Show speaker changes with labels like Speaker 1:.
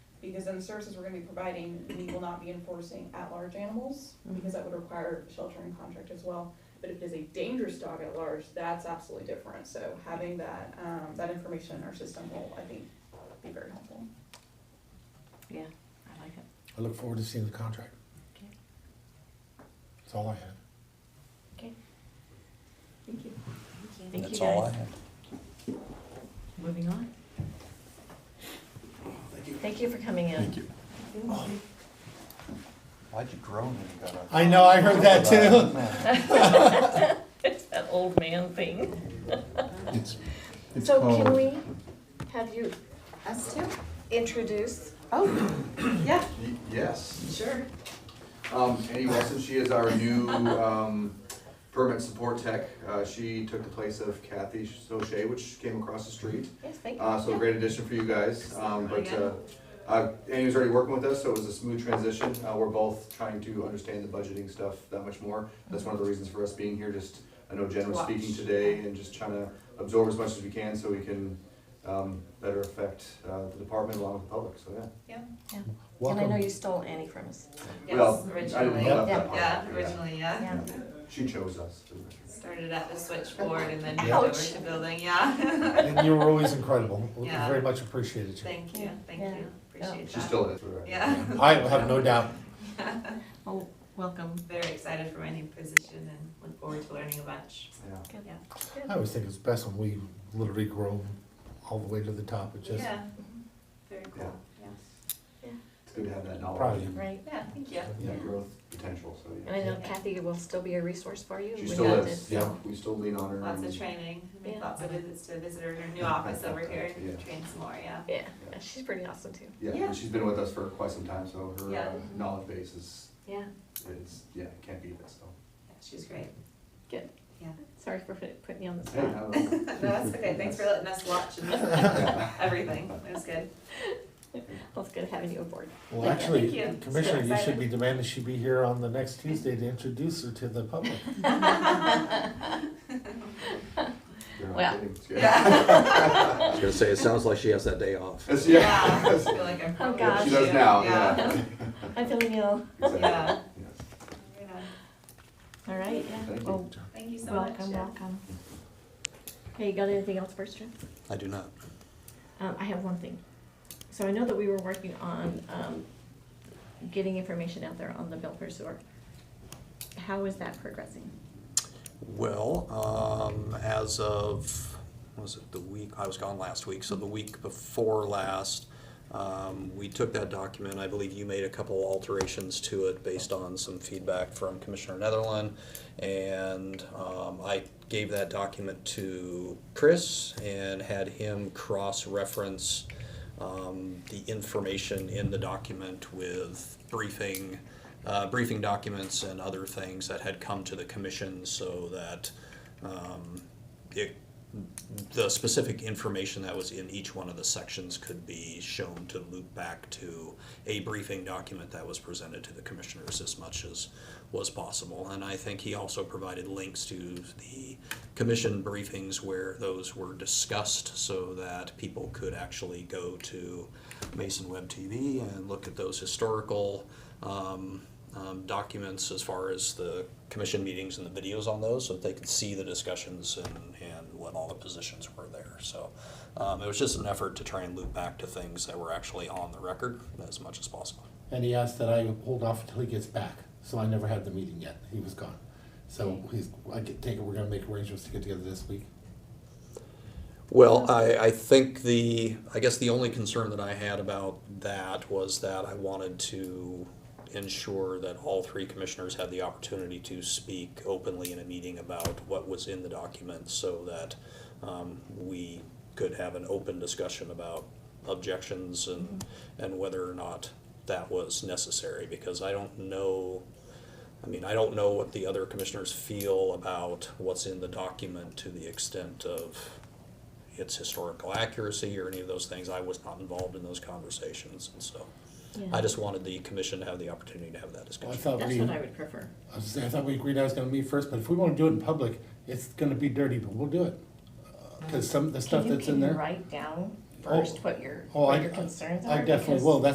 Speaker 1: Because then the services we're gonna be providing, we will not be enforcing at-large animals, because that would require sheltering contract as well. But if it is a dangerous dog at large, that's absolutely different, so having that, um, that information in our system will, I think, be very helpful.
Speaker 2: Yeah, I like it.
Speaker 3: I look forward to seeing the contract.
Speaker 2: Okay.
Speaker 3: That's all I have.
Speaker 1: Thank you.
Speaker 2: Thank you
Speaker 4: That's all I
Speaker 2: guys.
Speaker 4: have.
Speaker 2: Moving on. Thank you. Thank you for coming in.
Speaker 5: Thank you.
Speaker 4: Why'd you groan when you got up?
Speaker 3: I know, I heard that too.
Speaker 4: too.
Speaker 2: It's that old man thing.
Speaker 5: It's, it's
Speaker 6: So can
Speaker 5: called-
Speaker 6: we have you, us two, introduce?
Speaker 1: Oh, yeah,
Speaker 7: Y- Yes.
Speaker 6: Sure.
Speaker 7: Um, Annie Wilson, she is our new, um, permit support tech. Uh, she took the place of Kathy Soche, which came across the street.
Speaker 6: Yes, thank you.
Speaker 7: Uh, so a great addition for you guys, um, but, uh, uh, Annie was already working with us, so it was a smooth transition. Uh, we're both trying to understand the budgeting stuff that much more. That's one of the reasons for us being here, just, I know Jen was
Speaker 1: Watch.
Speaker 7: speaking today and just trying to absorb as much as we can so we can, um, better affect, uh, the department along with the public, so yeah.
Speaker 2: And I know
Speaker 3: Welcome.
Speaker 2: you stole Annie from us.
Speaker 7: Well,
Speaker 8: Yes,
Speaker 7: I didn't
Speaker 8: originally.
Speaker 7: know about
Speaker 2: Yeah.
Speaker 7: that part.
Speaker 8: Yeah, originally, yeah.
Speaker 2: Yeah.
Speaker 7: She chose us.
Speaker 8: Started at the switchboard and then
Speaker 3: Yeah.
Speaker 8: moved over to building, yeah.
Speaker 3: And you were always incredible. We
Speaker 8: Yeah.
Speaker 3: Very much appreciated you.
Speaker 8: Thank you, thank
Speaker 2: Yeah.
Speaker 8: you, appreciate that.
Speaker 7: She still is.
Speaker 8: Yeah.
Speaker 3: I have no doubt.
Speaker 2: Oh, welcome.
Speaker 8: Very excited for my new position and look forward to learning a bunch.
Speaker 7: Yeah.
Speaker 8: Yeah.
Speaker 3: I always think it's best when we literally grow all the way to the top. It's just
Speaker 8: Yeah, very cool, yeah.
Speaker 7: It's good to have that knowledge.
Speaker 3: proud of you.
Speaker 2: Right.
Speaker 8: Yeah, thank you.
Speaker 7: Yeah, growth potential, so
Speaker 2: And
Speaker 7: yeah.
Speaker 2: I know Kathy will still be a resource for you.
Speaker 7: She
Speaker 2: We
Speaker 7: still
Speaker 2: know
Speaker 7: is,
Speaker 2: this.
Speaker 7: yeah, we still lean on her.
Speaker 8: Lots
Speaker 7: and-
Speaker 8: of training, I
Speaker 2: Yeah.
Speaker 8: make lots of visits to visitors, our new office over here,
Speaker 7: Yeah.
Speaker 8: train some more, yeah.
Speaker 2: Yeah, yeah, she's pretty awesome too.
Speaker 7: Yeah,
Speaker 8: Yeah.
Speaker 7: and she's been with us for quite some time, so her
Speaker 8: Yeah.
Speaker 7: uh, knowledge base is,
Speaker 2: Yeah,
Speaker 7: is, yeah, can't beat it, so.
Speaker 8: Yeah, She's great.
Speaker 2: Good.
Speaker 8: Yeah.
Speaker 2: sorry for put- putting you on the
Speaker 7: Hey,
Speaker 2: spot.
Speaker 7: I don't know.
Speaker 8: No, that's okay, thanks for letting us watch and
Speaker 7: Yeah.
Speaker 8: everything, it was good.
Speaker 2: Well, it's good having you aboard.
Speaker 3: Well,
Speaker 2: Yeah,
Speaker 3: actually,
Speaker 8: thank you. It's
Speaker 3: Commissioner,
Speaker 8: so
Speaker 3: you should
Speaker 8: exciting.
Speaker 3: be demanding she be here on the next Tuesday to introduce her to the public.
Speaker 7: You're not
Speaker 2: Well.
Speaker 7: kidding. It's good.
Speaker 8: Yeah.
Speaker 4: I was gonna say, it sounds like she has that day off.
Speaker 7: It's-
Speaker 8: Yeah,
Speaker 7: Yeah.
Speaker 8: I feel like I'm.
Speaker 2: Oh,
Speaker 7: Yeah,
Speaker 2: gosh.
Speaker 7: She does now, yeah.
Speaker 2: I'm feeling ill.
Speaker 7: Exactly,
Speaker 8: Yeah.
Speaker 7: yes.
Speaker 8: Right on.
Speaker 2: All right, yeah.
Speaker 7: Thank you.
Speaker 2: Well,
Speaker 8: Thank you so much.
Speaker 2: welcome,
Speaker 8: yeah.
Speaker 2: welcome. Hey, you got anything else for us, Jen?
Speaker 4: I do not.
Speaker 2: Um, I have one thing. So I know that we were working on, um, getting information out there on the bill pursuer. How is that progressing?
Speaker 4: Well, um, as of, was it the week, I was gone last week, so the week before last, um, we took that document, I believe you made a couple alterations to it based on some feedback from Commissioner Netherland. And, um, I gave that document to Chris and had him cross-reference, um, the information in the document with briefing, uh, briefing documents and other things that had come to the commission so that um, it, the specific information that was in each one of the sections could be shown to loop back to a briefing document that was presented to the commissioners as much as was possible. And I think he also provided links to the commission briefings where those were discussed so that people could actually go to Mason Web TV and look at those historical um, um, documents as far as the commission meetings and the videos on those, so that they could see the discussions and, and what all the positions were there. So um, it was just an effort to try and loop back to things that were actually on the record as much as possible.
Speaker 3: And he asked that I hold off until he gets back, so I never had the meeting yet. He was gone. So he's, I get- take it, we're gonna make arrangements to get together this week.
Speaker 4: Well, I, I think the, I guess the only concern that I had about that was that I wanted to ensure that all three commissioners had the opportunity to speak openly in a meeting about what was in the document so that um, we could have an open discussion about objections and, and whether or not that was necessary, because I don't know I mean, I don't know what the other commissioners feel about what's in the document to the extent of its historical accuracy or any of those things. I was not involved in those conversations, and so I just wanted the commission to have the opportunity to have that
Speaker 3: I
Speaker 4: discussion.
Speaker 3: thought
Speaker 2: That's
Speaker 3: we,
Speaker 2: what I
Speaker 3: I
Speaker 2: would prefer.
Speaker 3: was saying, I thought we agreed I was gonna meet first, but if we wanna do it in public, it's gonna be dirty, but we'll do it. Uh, Cause some, of the stuff
Speaker 2: Can you-
Speaker 3: that's in there.
Speaker 2: Can you write down
Speaker 3: Oh.
Speaker 2: first what your,
Speaker 3: Oh, I-
Speaker 2: what your concerns are?
Speaker 3: I definitely
Speaker 2: Because-
Speaker 3: will, That's